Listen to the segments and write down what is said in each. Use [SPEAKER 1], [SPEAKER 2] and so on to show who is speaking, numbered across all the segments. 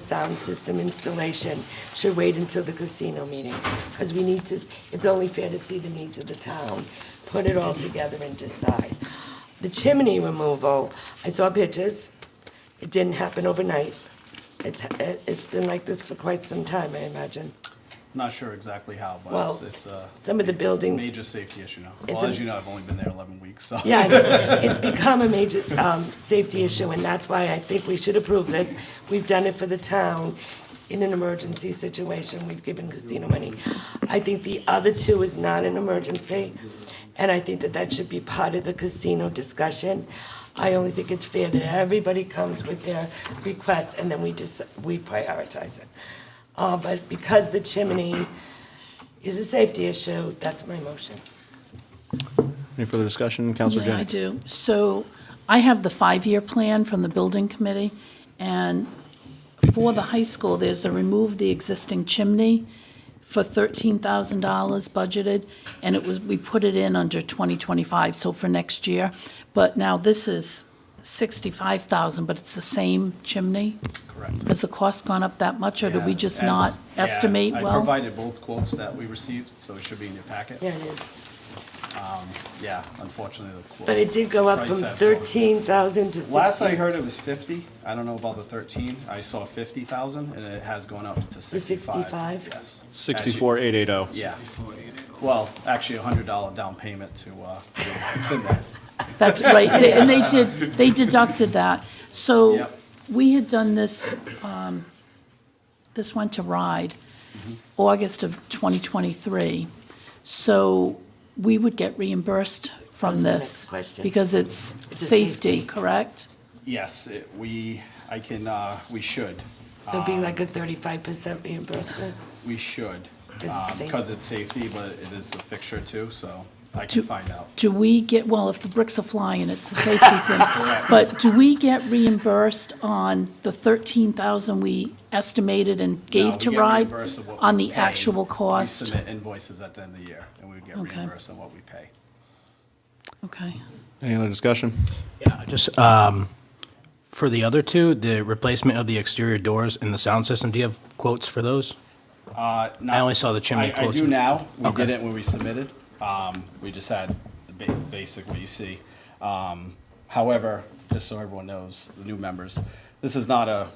[SPEAKER 1] sound system installation should wait until the casino meeting, because we need to, it's only fair to see the needs of the town, put it all together and decide. The chimney removal, I saw pictures, it didn't happen overnight. It's, it's been like this for quite some time, I imagine.
[SPEAKER 2] Not sure exactly how, but
[SPEAKER 1] Well,
[SPEAKER 2] it's, it's a
[SPEAKER 1] some of the building-
[SPEAKER 2] major safety issue now.
[SPEAKER 1] It's
[SPEAKER 2] Well,
[SPEAKER 1] a-
[SPEAKER 2] as you know, I've only been there 11 weeks, so
[SPEAKER 1] Yeah, it's- it's become a major um, safety issue, and that's why I think we should approve this. We've done it for the town in an emergency situation. We've given casino money. I think the other two is not an emergency, and I think that that should be part of the casino discussion. I only think it's fair that everybody comes with their requests, and then we just, we prioritize it. Uh, But because the chimney is a safety issue, that's my motion.
[SPEAKER 3] Any further discussion, Counselor
[SPEAKER 4] Yeah, I
[SPEAKER 3] Janik?
[SPEAKER 4] do. So I have the five-year plan from the building committee, and for the high school, there's to remove the existing chimney for thirteen thousand dollars budgeted, and it was, we put it in under twenty twenty-five, so for next year. But now this is sixty-five thousand, but it's the same chimney?
[SPEAKER 2] correct.
[SPEAKER 4] Has the cost gone up that much, or did we
[SPEAKER 2] Yeah,
[SPEAKER 4] just
[SPEAKER 2] as-
[SPEAKER 4] not
[SPEAKER 2] yeah,
[SPEAKER 4] estimate
[SPEAKER 2] I
[SPEAKER 4] well?
[SPEAKER 2] provided both quotes that we received, so it should be in your packet.
[SPEAKER 1] There it is.
[SPEAKER 2] Yeah, unfortunately, the quote.
[SPEAKER 1] But it did go up
[SPEAKER 2] price
[SPEAKER 1] from
[SPEAKER 2] that-
[SPEAKER 1] thirteen thousand to
[SPEAKER 2] Last I
[SPEAKER 1] sixty.
[SPEAKER 2] heard it was 50. I don't know about the 13. I saw 50,000 and it has gone up to 65.
[SPEAKER 1] 65?
[SPEAKER 2] Yes. As you-
[SPEAKER 3] 64880.
[SPEAKER 2] Yeah. Well, actually, a $100 down payment to, uh, to- it's in there.
[SPEAKER 4] That's right, They- and they did, they deducted that. So
[SPEAKER 2] Yep.
[SPEAKER 4] we had done this, um, this went to RIDE,
[SPEAKER 2] Mm-hmm.
[SPEAKER 4] August of 2023. So we would get reimbursed from
[SPEAKER 1] the next
[SPEAKER 4] this.
[SPEAKER 1] question.
[SPEAKER 4] Because it's
[SPEAKER 1] It's a
[SPEAKER 4] safety, correct?
[SPEAKER 2] Yes, it- we, I can, uh, we should.
[SPEAKER 1] So it'd be like a thirty-five percent reimbursement.
[SPEAKER 2] We should,
[SPEAKER 1] Is it safe?
[SPEAKER 2] because it's safety, but it is a fixture too, so I can
[SPEAKER 4] Do-
[SPEAKER 2] find out.
[SPEAKER 4] Do we get, well, if the bricks are flying, it's a safety thing. But do we get reimbursed on the 13,000 we estimated and
[SPEAKER 2] No,
[SPEAKER 4] gave
[SPEAKER 2] we
[SPEAKER 4] to
[SPEAKER 2] get
[SPEAKER 4] RIDE?
[SPEAKER 2] reimbursed of what we
[SPEAKER 4] On the
[SPEAKER 2] pay.
[SPEAKER 4] actual
[SPEAKER 2] We
[SPEAKER 4] cost?
[SPEAKER 2] submit invoices at the end of the year, and we get
[SPEAKER 4] Okay.
[SPEAKER 2] reimbursed on what we pay.
[SPEAKER 4] Okay.
[SPEAKER 3] Any other discussion?
[SPEAKER 5] Yeah, just, um, for the other two, the replacement of the exterior doors and the sound system, do you have quotes for those?
[SPEAKER 2] I
[SPEAKER 5] only saw the chimney
[SPEAKER 2] I
[SPEAKER 5] quotes.
[SPEAKER 2] do now, we
[SPEAKER 5] Okay.
[SPEAKER 2] did it when we submitted, um, we just had the ba- basic what you see. Um, however, just so everyone knows, the new members, this is not a,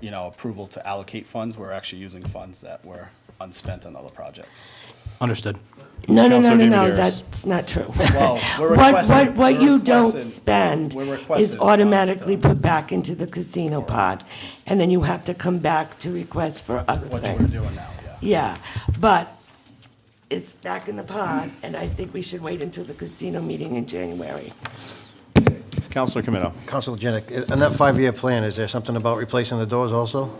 [SPEAKER 2] you know, approval to allocate funds, we're actually using funds that were unspent on other projects.
[SPEAKER 5] Understood.
[SPEAKER 1] No, no, no,
[SPEAKER 3] Counselor
[SPEAKER 1] no, no,
[SPEAKER 3] David Harris.
[SPEAKER 1] that's not true.
[SPEAKER 2] Well, we're
[SPEAKER 1] What,
[SPEAKER 2] requesting-
[SPEAKER 1] what, what
[SPEAKER 2] we're
[SPEAKER 1] you don't
[SPEAKER 2] requesting-
[SPEAKER 1] spend
[SPEAKER 2] we're
[SPEAKER 1] is
[SPEAKER 2] requesting funds
[SPEAKER 1] automatically
[SPEAKER 2] to-
[SPEAKER 1] put back into the casino pot, and then you have to come back to request for other
[SPEAKER 2] What you were
[SPEAKER 1] things.
[SPEAKER 2] doing now, yeah.
[SPEAKER 1] Yeah, but it's back in the pot, and I think we should wait until the casino meeting in January.
[SPEAKER 3] Counselor Camino.
[SPEAKER 6] Council Janik, in that five-year plan, is there something about replacing the doors also?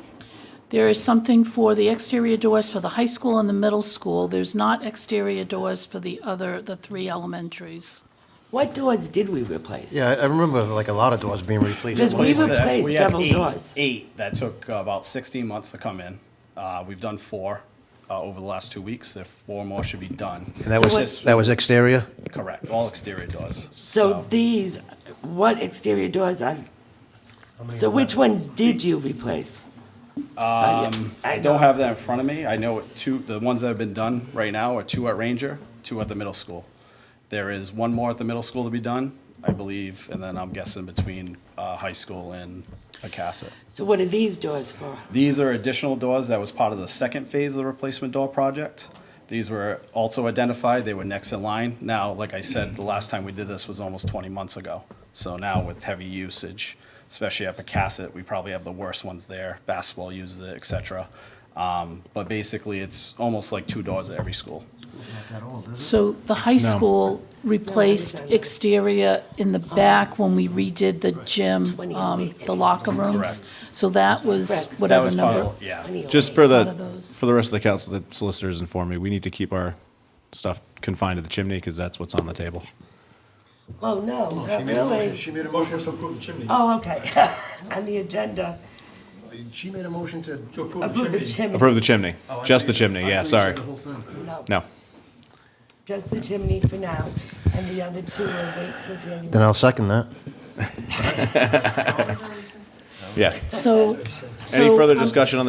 [SPEAKER 4] There is something for the exterior doors for the high school and the middle school. There's not exterior doors for the other, the three elementaries.
[SPEAKER 1] What doors did we replace?
[SPEAKER 6] Yeah, I I remember like a lot of doors being replaced.
[SPEAKER 1] There's We
[SPEAKER 2] Place
[SPEAKER 1] replaced
[SPEAKER 2] that- we had
[SPEAKER 1] several
[SPEAKER 2] eight-
[SPEAKER 1] doors.
[SPEAKER 2] Eight, that took uh, about 16 months to come in. Uh, We've done four uh, over the last two weeks, there four more should be done.
[SPEAKER 6] And that
[SPEAKER 1] So
[SPEAKER 6] was,
[SPEAKER 1] what-
[SPEAKER 6] that was exterior?
[SPEAKER 2] Correct, all exterior doors.
[SPEAKER 1] So these, what exterior doors are, so which ones did you replace? Um,
[SPEAKER 2] I don't have that in front of me. I know it- two, the ones that have been done right now are two at Ranger, two at the middle school. There is one more at the middle school to be done, I believe, and then I'm guessing between uh, high school and Acasset.
[SPEAKER 1] So what are these doors for?
[SPEAKER 2] These are additional doors that was part of the second phase of the replacement door project. These were also identified, they were next in line. Now, like I said, the last time we did this was almost 20 months ago. So now with heavy usage, especially at Pecasset, we probably have the worst ones there. Basketball uses it, et cetera. Um, But basically, it's almost like two doors at every school.
[SPEAKER 4] So the high school replaced exterior in the back when we redid the gym, um, the locker rooms.
[SPEAKER 2] Correct.
[SPEAKER 4] So that was
[SPEAKER 1] Correct.
[SPEAKER 2] That
[SPEAKER 4] whatever
[SPEAKER 2] was part
[SPEAKER 4] number.
[SPEAKER 2] of, yeah.
[SPEAKER 3] Just for
[SPEAKER 4] Out of
[SPEAKER 3] the,
[SPEAKER 4] those.
[SPEAKER 3] for the rest of the council, the solicitors informed me, we need to keep our stuff confined to the chimney because that's what's on the table.
[SPEAKER 1] Oh, no, not really.
[SPEAKER 6] She made a motion to approve the chimney.
[SPEAKER 1] Oh, okay, on the agenda,
[SPEAKER 6] She made a motion to.
[SPEAKER 1] approve the chimney,
[SPEAKER 3] Approve the chimney,
[SPEAKER 6] Oh,
[SPEAKER 3] just the chimney, yeah, sorry. No.
[SPEAKER 1] just the chimney for now, and the other two will wait till
[SPEAKER 6] Then
[SPEAKER 1] January.
[SPEAKER 6] I'll second that.
[SPEAKER 3] Yeah.
[SPEAKER 4] So.
[SPEAKER 3] Any
[SPEAKER 4] so
[SPEAKER 3] further
[SPEAKER 4] I'm- um,
[SPEAKER 3] discussion on the